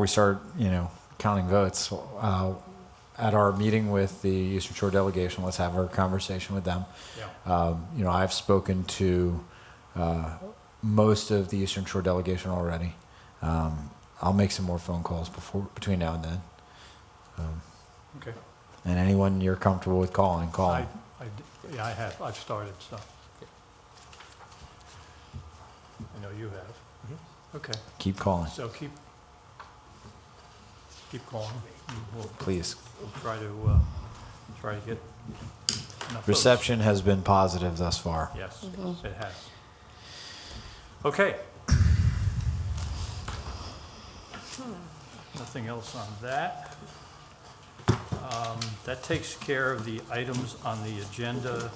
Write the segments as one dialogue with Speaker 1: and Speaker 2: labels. Speaker 1: we start, you know, counting votes, uh, at our meeting with the Eastern Shore delegation, let's have our conversation with them. Um, you know, I've spoken to uh, most of the Eastern Shore delegation already. Um, I'll make some more phone calls before between now and then. Um,
Speaker 2: Okay.
Speaker 1: and anyone you're comfortable with calling, call.
Speaker 2: I, I d- yeah, I have, I've started, so. I know you have. Okay,
Speaker 1: Keep calling,
Speaker 2: so keep, keep calling. and We'll
Speaker 1: please.
Speaker 2: we'll try to, uh, try to get enough votes.
Speaker 1: Reception has been positive thus far.
Speaker 2: Yes, it has. Okay. Nothing else on that. Um, That takes care of the items on the agenda.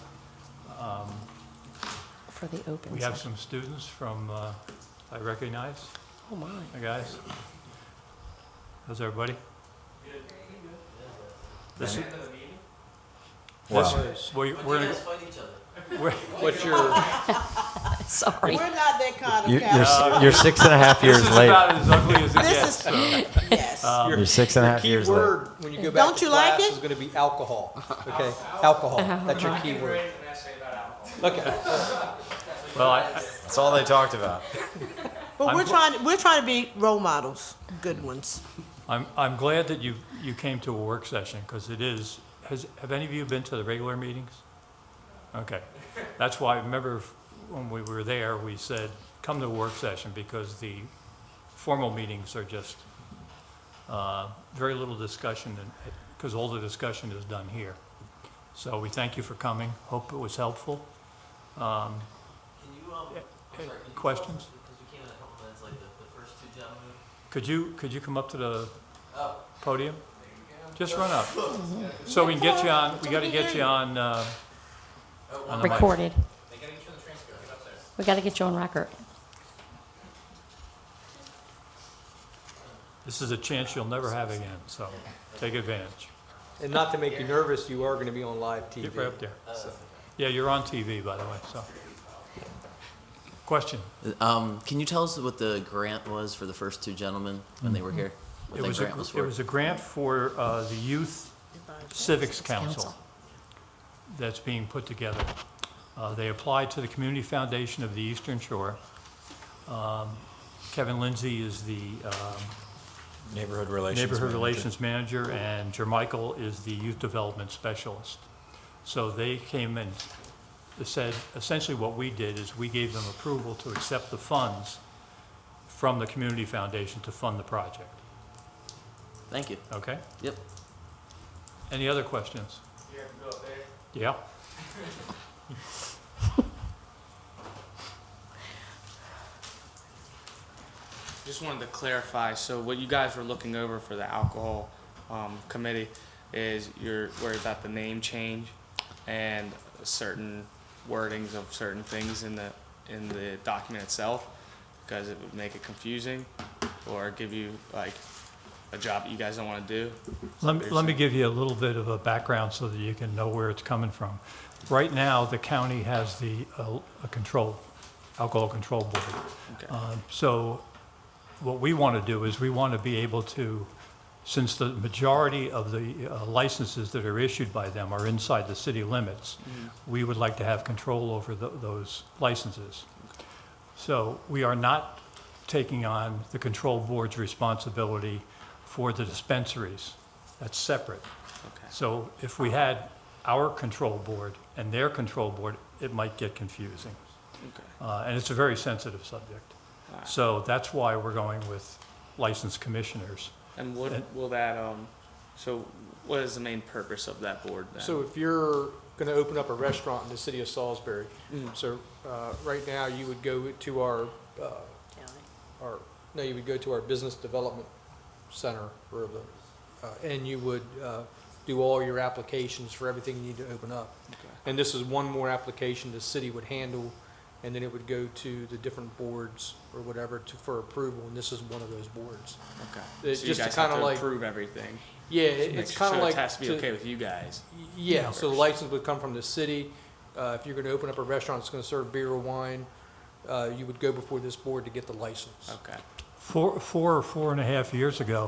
Speaker 3: for the open
Speaker 2: We have
Speaker 3: session.
Speaker 2: some students from, uh, I recognize,
Speaker 3: Oh, my.
Speaker 2: Hi, guys. How's everybody? This is-
Speaker 1: Wow.
Speaker 2: this- we- we're-
Speaker 4: fight each other.
Speaker 2: we're- What's your?
Speaker 3: Sorry.
Speaker 5: We're not that kind
Speaker 1: You,
Speaker 5: of
Speaker 1: you're,
Speaker 5: county.
Speaker 1: s- you're six and a half years
Speaker 2: This is
Speaker 1: late.
Speaker 2: about as ugly as it
Speaker 5: This
Speaker 2: gets,
Speaker 5: is-
Speaker 2: so.
Speaker 5: Yes.
Speaker 1: You're six and a half
Speaker 6: key
Speaker 1: years late.
Speaker 6: word when you go back
Speaker 5: Don't
Speaker 6: to
Speaker 5: you like
Speaker 6: class
Speaker 5: it?
Speaker 6: is going to be alcohol. Okay, alcohol. That's your key word. Okay.
Speaker 2: Well, I- I-
Speaker 1: That's all they talked about.
Speaker 5: But we're
Speaker 2: I'm-
Speaker 5: trying, we're trying to be role models, good ones.
Speaker 2: I'm, I'm glad that you, you came to a work session, because it is, has, have any of you been to the regular meetings? Okay, that's why, I remember when we were there, we said, come to a work session, because the formal meetings are just, uh, very little discussion, and, because all the discussion is done here. So we thank you for coming, hope it was helpful. Um,
Speaker 4: Can you, um, I'm sorry, can you
Speaker 2: questions?
Speaker 4: tell us, Because we came in a couple minutes late, the, the first two gentlemen.
Speaker 2: Could you, could you come up to the
Speaker 4: Oh,
Speaker 2: podium? Just run up. So we can get you on, we gotta get you on, uh, on the mic.
Speaker 3: Recorded.
Speaker 4: they gotta get you on the transcript, get up there.
Speaker 3: We got to get you on record.
Speaker 2: This is a chance you'll never have again, so take advantage.
Speaker 6: And not to make you nervous, you are going to be on live TV.
Speaker 2: Get right up there. Yeah, you're on TV, by the way, so. Question?
Speaker 4: Um, can you tell us what the grant was for the first two gentlemen when they were here? What
Speaker 2: Mm-hmm. It
Speaker 4: the
Speaker 2: was, a
Speaker 4: grant was
Speaker 2: gr-
Speaker 4: for?
Speaker 2: it was a grant for uh, the Youth Civics Council
Speaker 3: Council.
Speaker 2: that's being put together. Uh, They applied to the Community Foundation of the Eastern Shore. Um, Kevin Lindsay is the um,
Speaker 1: Neighborhood relations.
Speaker 2: Neighborhood
Speaker 1: manager.
Speaker 2: Relations Manager, and Jermichael is the Youth Development Specialist. So they came and said, essentially what we did is we gave them approval to accept the funds from the Community Foundation to fund the project,
Speaker 4: Thank you.
Speaker 2: okay?
Speaker 4: Yep.
Speaker 2: Any other questions? Yeah?
Speaker 7: Just wanted to clarify, so what you guys were looking over for the alcohol um, committee is you're worried about the name change and certain wordings of certain things in the, in the document itself, because it would make it confusing or give you like a job that you guys don't want to do.
Speaker 2: Let me, let me give you a little bit of a background so that you can know where it's coming from. Right now, the county has the, uh, a control, alcohol control board.
Speaker 7: Okay.
Speaker 2: Um, So what we want to do is we want to be able to, since the majority of the uh, licenses that are issued by them are inside the city limits, we would like to have control over tho- those licenses. So we are not taking on the control board's responsibility for the dispensaries. That's separate.
Speaker 7: Okay.
Speaker 2: So if we had our control board and their control board, it might get confusing.
Speaker 7: Okay.
Speaker 2: Uh, And it's a very sensitive subject. So that's why we're going with licensed commissioners.
Speaker 7: And what, will that, um, so what is the main purpose of that board then?
Speaker 6: So if you're going to open up a restaurant in the city of Salisbury,
Speaker 7: Mm,
Speaker 6: so uh, right now you would go to our, uh, our, no, you would go to our business development center or the, uh, and you would uh, do all your applications for everything you need to open up. And this is one more application the city would handle, and then it would go to the different boards or whatever to, for approval, and this is one of those boards.
Speaker 7: Okay.
Speaker 6: It's
Speaker 7: So you
Speaker 6: just to
Speaker 7: guys have
Speaker 6: kinda
Speaker 7: to
Speaker 6: like-
Speaker 7: approve everything.
Speaker 6: Yeah, it-
Speaker 7: Make
Speaker 6: it's
Speaker 7: sure-
Speaker 6: kind of like.
Speaker 7: So it has to be
Speaker 6: to-
Speaker 7: okay with you guys.
Speaker 6: yeah, so the license would come from the city. Uh, if you're gonna open up a restaurant that's gonna serve beer or wine, uh, you would go before this board to get the license.
Speaker 7: Okay.
Speaker 2: four, four or four and a half years ago,